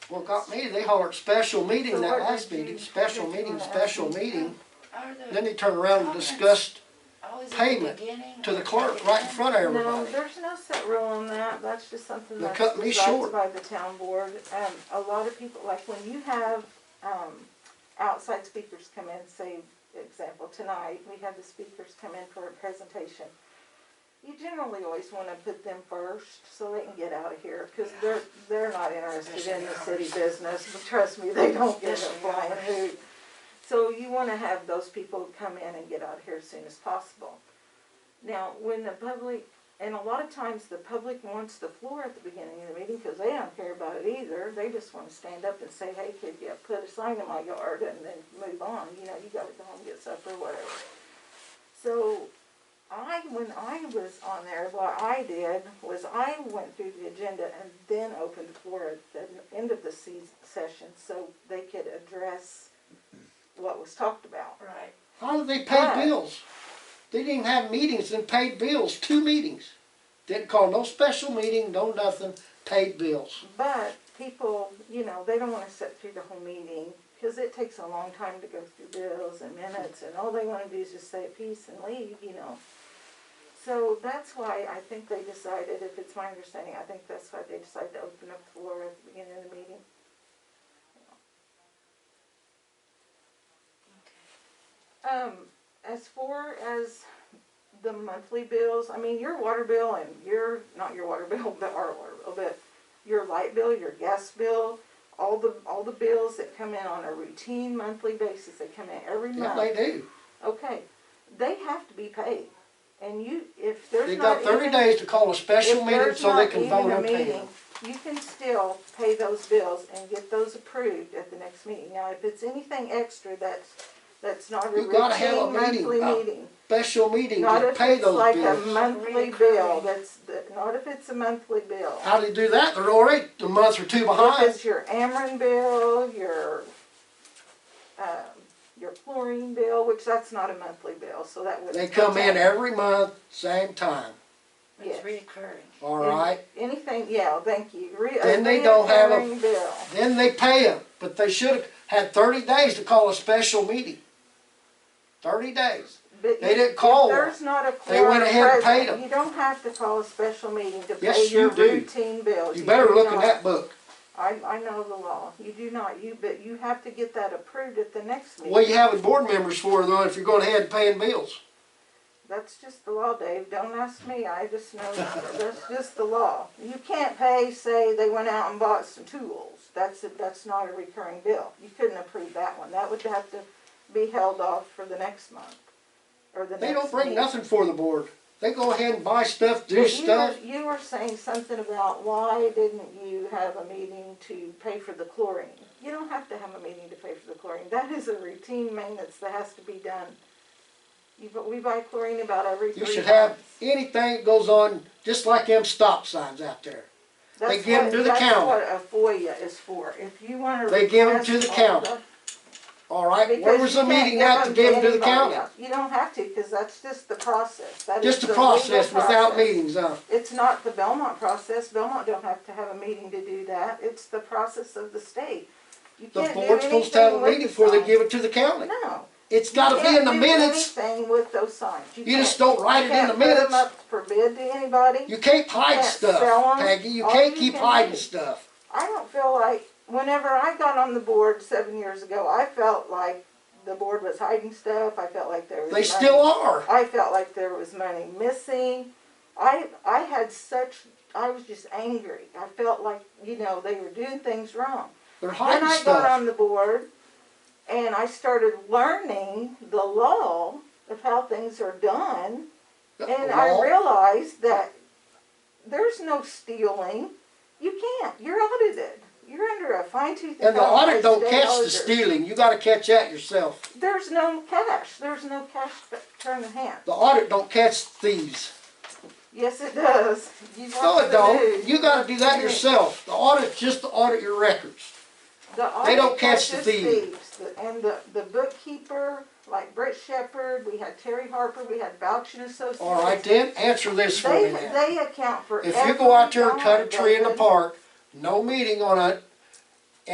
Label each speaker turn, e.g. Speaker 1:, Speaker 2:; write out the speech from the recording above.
Speaker 1: Well, got me, they hollered special meeting
Speaker 2: So
Speaker 1: that
Speaker 2: what did
Speaker 1: last
Speaker 2: you-
Speaker 1: meeting, special
Speaker 2: what did you
Speaker 1: meeting,
Speaker 2: wanna ask
Speaker 1: special
Speaker 2: me?
Speaker 1: meeting.
Speaker 3: Are the-
Speaker 1: Then they turned around and
Speaker 3: comments
Speaker 1: discussed
Speaker 3: always at the
Speaker 1: payment
Speaker 3: beginning
Speaker 1: to the
Speaker 3: or
Speaker 1: clerk right in
Speaker 3: end?
Speaker 1: front of
Speaker 2: No,
Speaker 1: everybody.
Speaker 2: there's no set rule on that, that's just something
Speaker 1: They
Speaker 2: that's
Speaker 1: cut me short.
Speaker 2: decided by the town board. Um, a lot of people, like when you have, um, outside speakers come in, say, example, tonight, we had the speakers come in for a presentation. You generally always wanna put them first, so they can get out of here, cause they're, they're not interested in the city business, but trust me, they don't give a
Speaker 3: Especially ours.
Speaker 2: flying hoot. So you wanna have those people come in and get out of here as soon as possible. Now, when the public, and a lot of times the public wants the floor at the beginning of the meeting because they don't care about it either. They just want to stand up and say, hey, could you put a sign in my yard and then move on? You know, you gotta go home and get supper, whatever. So I, when I was on there, what I did was I went through the agenda and then opened the floor at the end of the se- session so they could address what was talked about.
Speaker 3: Right,
Speaker 1: How did they
Speaker 2: Right.
Speaker 1: pay bills? They didn't even have meetings and paid bills, two meetings. Didn't call no special meeting, no nothing, paid bills.
Speaker 2: But people, you know, they don't wanna sit through the whole meeting, cause it takes a long time to go through bills and minutes, and all they wanna do is just say peace and leave, you know? So that's why I think they decided, if it's my understanding, I think that's why they decided to open up the floor at the beginning of the meeting. Um, as far as the monthly bills, I mean, your water bill and your, not your water bill, but our water bill, but your light bill, your gas bill, all the, all the bills that come in on a routine monthly basis, they come in every
Speaker 1: Yeah,
Speaker 2: month.
Speaker 1: they do.
Speaker 2: Okay, they have to be paid, and you, if there's
Speaker 1: They
Speaker 2: not
Speaker 1: got thirty
Speaker 2: even,
Speaker 1: days to call a special
Speaker 2: if
Speaker 1: meeting
Speaker 2: there's
Speaker 1: so they
Speaker 2: not
Speaker 1: can
Speaker 2: even
Speaker 1: vote
Speaker 2: a
Speaker 1: and pay
Speaker 2: meeting,
Speaker 1: them.
Speaker 2: you can still pay those bills and get those approved at the next meeting. Now, if it's anything extra, that's, that's not a
Speaker 1: You gotta have a
Speaker 2: routine
Speaker 1: meeting
Speaker 2: monthly
Speaker 1: about-
Speaker 2: meeting.
Speaker 1: Special meeting
Speaker 2: Not
Speaker 1: to
Speaker 2: if
Speaker 1: pay
Speaker 2: it's
Speaker 1: those
Speaker 2: like a
Speaker 1: bills.
Speaker 2: monthly bill,
Speaker 3: Reoccurring.
Speaker 2: that's, the- not if it's a monthly bill.
Speaker 1: How do you do that? They're already a month or two
Speaker 2: If
Speaker 1: behind.
Speaker 2: it's your Ameren bill, your, um, your chlorine bill, which that's not a monthly bill, so that wouldn't.
Speaker 1: They come in
Speaker 2: count.
Speaker 1: every month, same time,
Speaker 2: Yes.
Speaker 3: it's reoccurring.
Speaker 1: all right?
Speaker 2: Anything, yeah, thank you. Re- a
Speaker 1: Then they don't have a-
Speaker 2: reoccurring bill.
Speaker 1: Then they pay them, but they should have had thirty days to call a special meeting. Thirty days.
Speaker 2: But
Speaker 1: They
Speaker 2: you-
Speaker 1: didn't call
Speaker 2: if There's not a
Speaker 1: They went
Speaker 2: quorum
Speaker 1: ahead and paid
Speaker 2: present.
Speaker 1: them.
Speaker 2: You don't have to call a special meeting to
Speaker 1: Yes,
Speaker 2: pay your
Speaker 1: you do.
Speaker 2: routine bills.
Speaker 1: You better
Speaker 2: do
Speaker 1: look in
Speaker 2: not.
Speaker 1: that book.
Speaker 2: I, I know the law. You do not, you, but you have to get that approved at the next meeting.
Speaker 1: What you having board members for though, if you're going ahead and paying bills?
Speaker 2: That's just the law, Dave. Don't ask me. I just know that's just the law. You can't pay, say, they went out and bought some tools. That's, that's not a recurring bill. You couldn't approve that one. That would have to be held off for the next month or the next
Speaker 1: They don't bring
Speaker 2: meeting.
Speaker 1: nothing for the board. They go ahead and buy stuff, do
Speaker 2: But you were-
Speaker 1: stuff.
Speaker 2: You were saying something about why didn't you have a meeting to pay for the chlorine? You don't have to have a meeting to pay for the chlorine. That is a routine maintenance that has to be done. You, bu- we buy chlorine about every three
Speaker 1: You
Speaker 2: months.
Speaker 1: should have anything that goes on, just like them stop signs out there. They
Speaker 2: That's
Speaker 1: give 'em
Speaker 2: what-
Speaker 1: to the county.
Speaker 2: That's what a FOIA is for, if you wanna.
Speaker 1: They give 'em to the
Speaker 2: request all
Speaker 1: county.
Speaker 2: the-
Speaker 1: All right, where
Speaker 2: because
Speaker 1: was
Speaker 2: you
Speaker 1: the
Speaker 2: can't
Speaker 1: meeting at to
Speaker 2: 'em
Speaker 1: give them to the
Speaker 2: anybody
Speaker 1: county?
Speaker 2: else. You don't have to, cause that's just the process, that is
Speaker 1: Just
Speaker 2: the
Speaker 1: a
Speaker 2: legal
Speaker 1: process without
Speaker 2: process.
Speaker 1: meetings, uh, huh?
Speaker 2: It's not the Belmont process, Belmont don't have to have a meeting to do that, it's the process of the state. You
Speaker 1: The
Speaker 2: can't do
Speaker 1: board's supposed to have a
Speaker 2: anything with
Speaker 1: meeting
Speaker 2: the
Speaker 1: before they
Speaker 2: sign.
Speaker 1: give it to the county.
Speaker 2: No.
Speaker 1: It's gotta be in the minutes.
Speaker 2: You can't do anything with those signs.
Speaker 1: You just
Speaker 2: can't-
Speaker 1: don't write it in
Speaker 2: you
Speaker 1: the
Speaker 2: can't put 'em
Speaker 1: minutes.
Speaker 2: up for bid to anybody.
Speaker 1: You can't hide
Speaker 2: can't sell
Speaker 1: stuff,
Speaker 2: 'em.
Speaker 1: Peggy. You
Speaker 2: All
Speaker 1: can't
Speaker 2: you
Speaker 1: keep
Speaker 2: can
Speaker 1: hiding
Speaker 2: do-
Speaker 1: stuff.
Speaker 2: I don't feel like, whenever I got on the board seven years ago, I felt like the board was hiding stuff, I felt like there was.
Speaker 1: They
Speaker 2: money-
Speaker 1: still are.
Speaker 2: I felt like there was money missing. I, I had such, I was just angry. I felt like, you know, they were doing things wrong.
Speaker 1: They're
Speaker 2: Then
Speaker 1: hiding
Speaker 2: I got
Speaker 1: stuff.
Speaker 2: on the board and I started learning the law of how things are done. And I
Speaker 1: Well,
Speaker 2: realized that there's no stealing. You can't. You're audited. You're under a fine tooth.
Speaker 1: And the
Speaker 2: comb by
Speaker 1: audit don't
Speaker 2: state
Speaker 1: catch the
Speaker 2: auditor.
Speaker 1: stealing. You gotta catch that yourself.
Speaker 2: There's no cash. There's no cash turn of hand.
Speaker 1: The audit don't catch thieves.
Speaker 2: Yes, it does. You
Speaker 1: No,
Speaker 2: watch
Speaker 1: it
Speaker 2: the
Speaker 1: don't.
Speaker 2: news.
Speaker 1: You gotta do that yourself. The audit's just to audit your records.
Speaker 2: The
Speaker 1: They don't
Speaker 2: audit
Speaker 1: catch the
Speaker 2: catches
Speaker 1: thief.
Speaker 2: thieves. The- And the, the bookkeeper, like Brett Shepherd, we had Terry Harper, we had Bouch and Associates.
Speaker 1: All right then, answer this for
Speaker 2: They,
Speaker 1: me now.
Speaker 2: they account for.
Speaker 1: If you go out there and
Speaker 2: every
Speaker 1: cut a tree in the
Speaker 2: dime,
Speaker 1: park, no meeting on it,